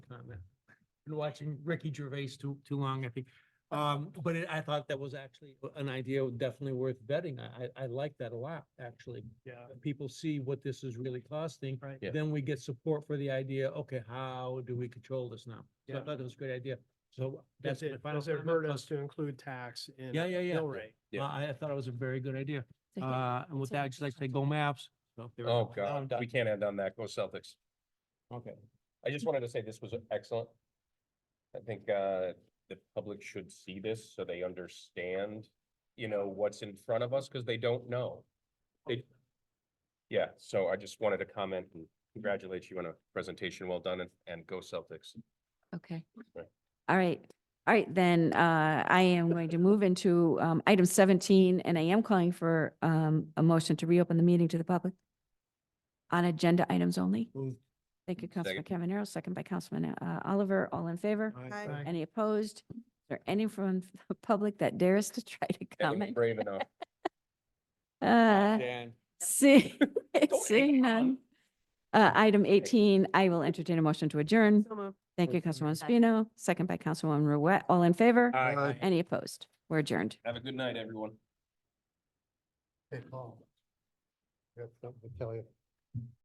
Been watching Ricky Gervais too, too long, I think. Um, but it- I thought that was actually an idea definitely worth vetting. I, I, I like that a lot, actually. Yeah, That People see what this is really costing. right. Yeah. Then we get support for the idea, okay, how do we control this now? So I Yeah. thought that was a great idea. So that's Does my it, final does it comment. hurt plus- us to include tax in Yeah, yeah, yeah. mill rate? Yeah. Uh, I, I thought it was a very good idea. Second. Uh, and with Second. that, I'd just like to say go maps. So there we Oh, go. Now I'm God, done. we can't end on that. Go Celtics. Okay. I just wanted to say this was excellent. I think uh the public should see this so they understand, you know, what's in front of us, because they don't know. They, yeah, so I just wanted to comment and congratulate you on a presentation well done and and go Celtics. Okay. Right. All right. All right, then uh, I am going to move into um, item 17, and I am calling for um, a motion to reopen the meeting to the public on agenda items only. Move. Thank you, Councilman Cavanero, second by Councilman uh, Oliver. All in favor? Aye. Any opposed? Is there any from the public that dares to try to And we're comment? Brave enough. Uh, Dan. See, Don't hang seeing on. none. Uh, item eighteen, I will entertain a motion to adjourn. Thank you, Councilwoman Spino, second by Councilwoman Ruette. All in favor? Aye. Any opposed? We're adjourned. Have a good night, everyone. Hey, Paul. I got something to tell you.